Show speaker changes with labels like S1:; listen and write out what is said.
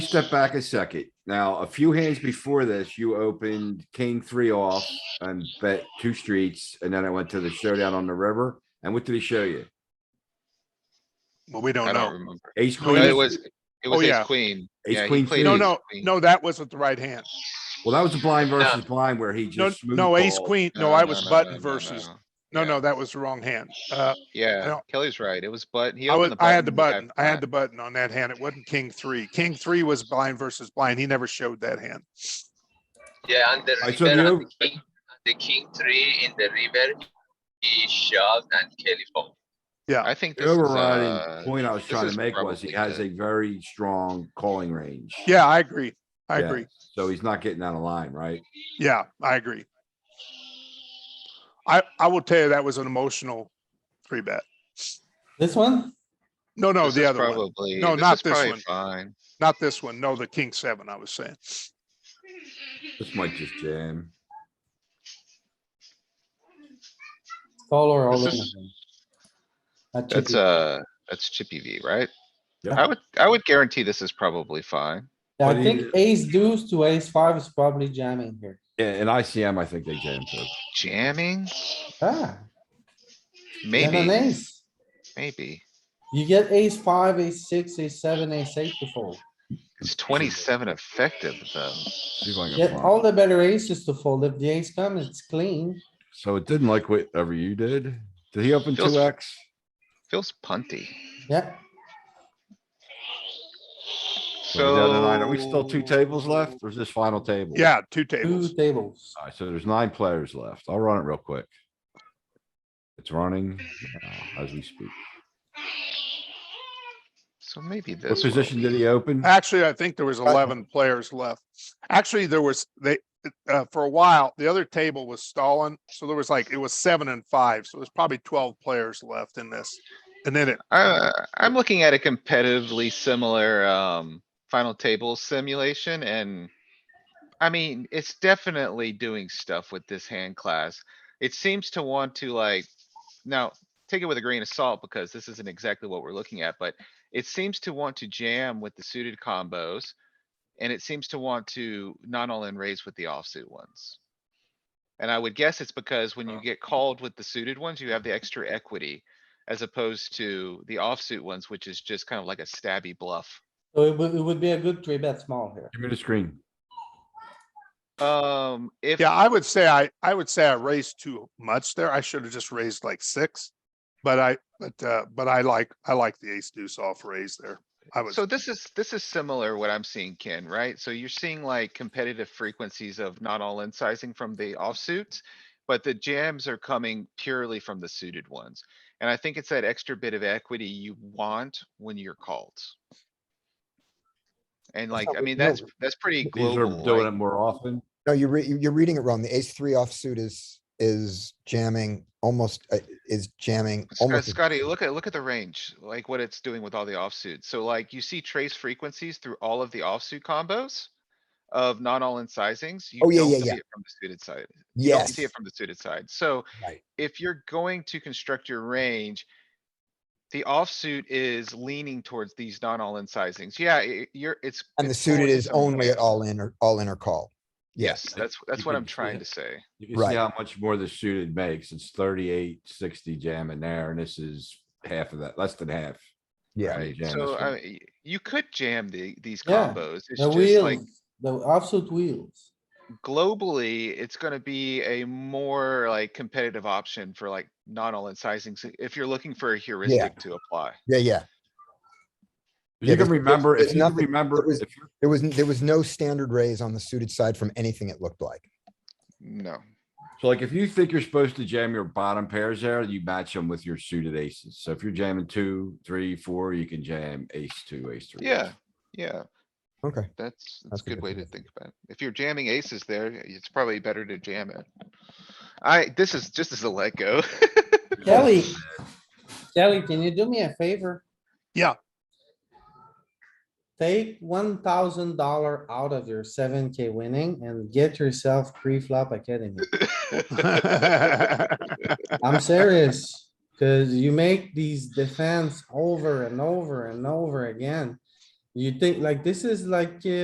S1: step back a second. Now, a few hands before this, you opened king three off and bet two streets, and then I went to the showdown on the river. And what did he show you?
S2: Well, we
S3: I
S2: don't
S3: don't
S2: know.
S3: remember.
S1: Ace
S2: No,
S3: No,
S1: queen.
S3: It
S1: is-
S3: was, it
S2: Oh,
S3: was ace
S2: yeah.
S3: queen.
S1: Ace
S3: Yeah, he
S1: queen
S3: played
S1: three.
S2: No,
S3: ace
S2: no,
S3: queen.
S2: no, that wasn't the right hand.
S1: Well, that was a blind versus blind where he
S2: No,
S1: just.
S2: no, ace
S1: smoothball.
S2: queen. No, I was button versus, no, no, that was the wrong hand. Uh,
S3: Yeah,
S2: don't-
S3: Kelly's right. It was button. He
S2: I was,
S3: opened the.
S2: I had the
S3: button.
S2: button. I had the button on that hand. It wasn't king three. King three was blind versus blind. He never showed that hand.
S4: Yeah, and the
S1: I saw
S4: river,
S1: the
S4: and the king, the king three in the river, he shoved and Kelly fold.
S3: I think
S1: The
S3: this is,
S1: Overriding
S3: uh,
S1: point I was
S3: this
S1: trying
S3: is
S1: to make was he
S3: probably
S1: has a
S3: good.
S1: very strong calling range.
S2: Yeah, I agree. I
S1: Yeah.
S2: agree.
S1: So he's not getting out of line, right?
S2: Yeah, I agree. I, I will tell you, that was an emotional three bet.
S5: This one?
S2: No, no,
S3: this
S2: the
S3: is
S2: other one,
S3: Probably.
S2: No, not
S3: is
S2: this
S3: probably
S2: one.
S3: Fine.
S2: not this one. No, the king seven, I was saying.
S1: This might just jam.
S5: Call or all
S3: This
S5: in?
S3: is,
S5: That should
S3: that's
S5: be-
S3: uh, that's chippy V, right?
S1: Yep.
S3: I would, I would guarantee this is probably fine.
S5: Yeah,
S1: but
S5: I
S1: he-
S5: think ace deuce to ace five is probably jamming here.
S1: Yeah, and ICM, I think they jam too.
S3: Jamming?
S5: Ah, and an
S3: Maybe,
S5: ace.
S3: maybe.
S5: You get ace five, ace six, ace seven, ace eight to fold.
S3: It's twenty-seven effective though.
S1: See if I can
S5: Get
S1: find
S5: all
S1: it.
S5: the better aces to fold. If the ace comes, it's clean.
S1: So it didn't like whatever you did. Did he open
S3: Feels-
S1: two X?
S3: Feels punty.
S5: Yeah,
S1: So we're down to nine.
S3: So.
S1: Are we still two tables left? Or is this final table?
S2: Yeah, two
S5: two
S2: tables.
S5: tables.
S1: Alright, so there's nine players left. I'll run it real quick. It's running now as we speak.
S3: So maybe
S1: What
S3: this.
S1: position
S3: one.
S1: did he open?
S6: Uh,
S2: Actually, I think there was eleven players left. Actually, there was, they, uh, for a while, the other table was stalling. So there was like, it was seven and five. So there's probably twelve players left in this. And then it,
S3: Uh, I'm looking at a competitively similar, um, final table simulation and. I mean, it's definitely doing stuff with this hand class. It seems to want to like, now, take it with a grain of salt because this isn't exactly what we're looking at, but. It seems to want to jam with the suited combos. And it seems to want to not all in raise with the offsuit ones. And I would guess it's because when you get called with the suited ones, you have the extra equity. As opposed to the offsuit ones, which is just kind of like a stabby bluff.
S5: So it would, it would be a good three bet small here.
S1: Give me the screen.
S3: Um, if,
S2: yeah, I would say I, I would say I raised too much there. I should have just raised like six. But I, but, uh, but I like, I like the ace deuce off raise there. I was,
S3: so this is, this is similar what I'm seeing, Ken, right? So you're seeing like competitive frequencies of not all in sizing from the offsuits. But the jams are coming purely from the suited ones. And I think it's that extra bit of equity you want when you're called. And like,
S6: how
S3: I
S6: we
S3: mean, that's,
S6: know.
S3: that's pretty
S1: These are
S3: global.
S1: doing it
S3: like-
S1: more often.
S6: No, you're, re- you're reading it wrong. The ace three offsuit is, is jamming almost, uh, is jamming
S3: Sc-
S6: almost. as-
S3: Scotty, look at, look at the range, like what it's doing with all the offsuit. So like you see trace frequencies through all of the offsuit combos of not all in sizings. You
S6: Oh, yeah,
S3: don't
S6: yeah,
S3: see
S6: yeah.
S3: it From the suited side. You don't
S6: Yes,
S3: see it from the suited side. So
S6: Right.
S3: if you're going to construct your range, the offsuit is leaning towards these not all in sizings. Yeah, i- you're, it's.
S6: and the
S3: it's going
S6: suited
S3: to
S6: is
S3: some
S6: only
S3: range.
S6: at all in or all in or call.
S3: Yes,
S6: Yes,
S3: that's, that's
S1: you
S3: what
S1: can
S3: I'm
S1: see
S3: trying
S1: it.
S3: to say.
S1: You can see
S6: Right.
S1: how much more the suited makes. It's thirty-eight, sixty jam in there, and this is half of that, less than half.
S6: yeah.
S1: Right,
S3: Right,
S1: jam
S3: so
S1: this
S3: I,
S1: one.
S3: mean, y- you could jam the, these
S5: Yeah,
S3: combos. It's
S5: The
S3: just like.
S5: wheels, the offsuit wheels.
S3: globally, it's gonna be a more like competitive option for like not all in sizing, if you're looking for a heuristic to apply.
S6: Yeah, yeah.
S1: You
S6: Yeah,
S1: can
S6: there's-
S1: remember,
S6: there's
S1: if you can
S6: nothing-
S1: remember,
S6: there was-
S1: if you're
S6: There was, n- there was no standard raise on the suited side from anything it looked like.
S3: No,
S1: So like if you think you're supposed to jam your bottom pairs there, you match them with your suited aces. So if you're jamming two, three, four, you can jam ace two, ace three. ace
S3: yeah, yeah,
S6: Okay.
S3: that's, that's
S6: That's
S3: a
S6: a
S3: good
S6: good
S3: way to
S6: point.
S3: think about it. If you're jamming aces there, it's probably better to jam it. I, this is just as a let go.
S5: Kelly. Kelly, can you do me a favor?
S2: Yeah.
S5: Take one thousand dollar out of your seven K winning and get yourself pre-flop academy. I'm serious, cuz you make these defense over and over and over again. You think like this is like uh,